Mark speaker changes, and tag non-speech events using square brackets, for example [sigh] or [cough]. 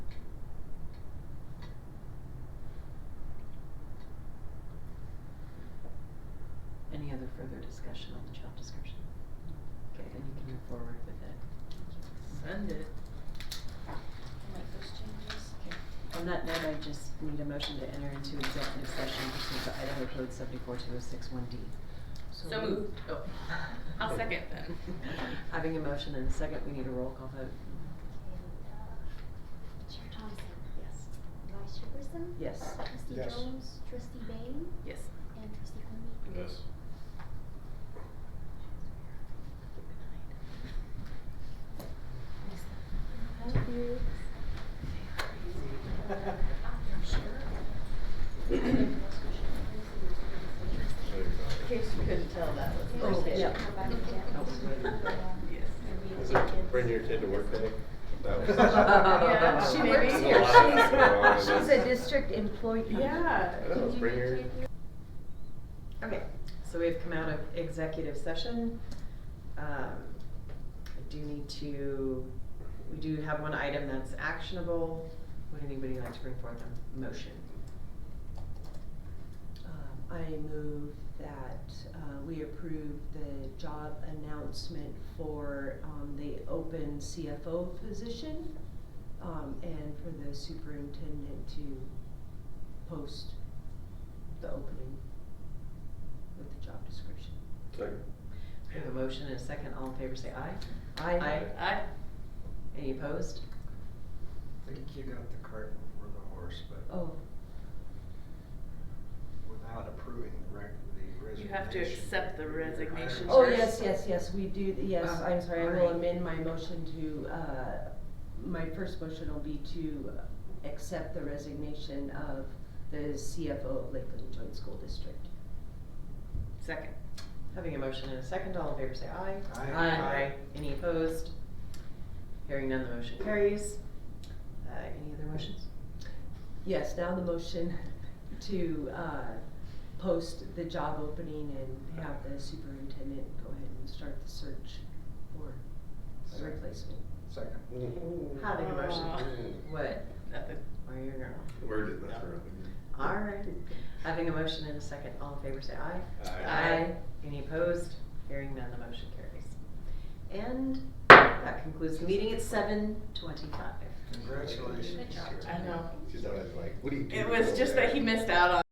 Speaker 1: further discussion on the job description. Okay, then you can move forward with it.
Speaker 2: Send it.
Speaker 3: Make those changes.
Speaker 1: Okay. On that note, I just need a motion to enter into executive session pursuant to Idaho Code seventy-four two oh six one D.
Speaker 2: So moved. Oh, [laughs] I'll second that.
Speaker 1: [laughs] Having a motion and a second, we need a roll call vote.
Speaker 4: Chair Thompson.
Speaker 1: Yes.
Speaker 4: Vice Chair Grissom.
Speaker 1: Yes.
Speaker 4: Trustee
Speaker 5: Yes.
Speaker 4: Jones, Trustee Bain,
Speaker 2: [laughs] Yes.
Speaker 4: and Trustee Quimby.
Speaker 5: Yes.
Speaker 3: Thank you. case you couldn't tell, that was the
Speaker 1: Oh,
Speaker 3: first day.
Speaker 1: yeah.
Speaker 2: Yes.
Speaker 5: Is it bring your kid to work day? That was-
Speaker 6: Uh-uh.
Speaker 2: Yeah, she
Speaker 3: Maybe.
Speaker 2: works here.
Speaker 5: There's a lot that's going on in
Speaker 7: uh,
Speaker 6: She's
Speaker 5: this.
Speaker 6: a district employee.
Speaker 3: Yeah.
Speaker 5: I know, bring your.
Speaker 1: Okay, so we've come out of executive session. Um, I do need to, we do have one item that's actionable. Would anybody like to bring forth a motion?
Speaker 7: Um, I move that uh, we approve the job announcement for um, the open CFO position um, and for the superintendent to post the opening with the job description.
Speaker 5: Second.
Speaker 1: We have a motion and a second. All in favor, say aye.
Speaker 7: Aye.
Speaker 2: Aye.
Speaker 1: Any opposed?
Speaker 6: I think you got the cart before the horse, but
Speaker 7: Oh,
Speaker 6: without approving the rec, the
Speaker 2: You
Speaker 6: resignation.
Speaker 2: have to accept the
Speaker 6: you're hiring.
Speaker 2: resignation
Speaker 7: oh,
Speaker 2: Sure.
Speaker 7: yes, yes, yes, we do, yes,
Speaker 1: Oh,
Speaker 7: I'm sorry, I will
Speaker 1: alright.
Speaker 7: amend my motion to, uh, my first motion will be to accept the resignation of the CFO of Lakeland Joint School District.
Speaker 2: Second.
Speaker 1: Having a motion and a second, all in favor say aye.
Speaker 6: Aye. Aye. Aye.
Speaker 1: Any opposed? Hearing none, the motion carries. Uh, any other motions?
Speaker 7: Yes, now the motion to, uh, post the job opening and have the superintendent go ahead and start the search for a replacement.
Speaker 6: Second.
Speaker 1: Having a motion.
Speaker 5: Mm.
Speaker 1: Uh, What?
Speaker 2: Nothing.
Speaker 1: Are you a girl?
Speaker 5: Where did that from?
Speaker 1: Alright. Having a motion and a second, all in favor say aye.
Speaker 5: Aye.
Speaker 1: Any opposed? Hearing none, the motion carries. And that concludes the meeting at seven twenty-five.
Speaker 6: Congratulations.
Speaker 4: Good job.
Speaker 2: I know.
Speaker 5: She's always like, what do you do?
Speaker 2: It was
Speaker 5: over
Speaker 2: just
Speaker 5: there?"
Speaker 2: that he missed out on.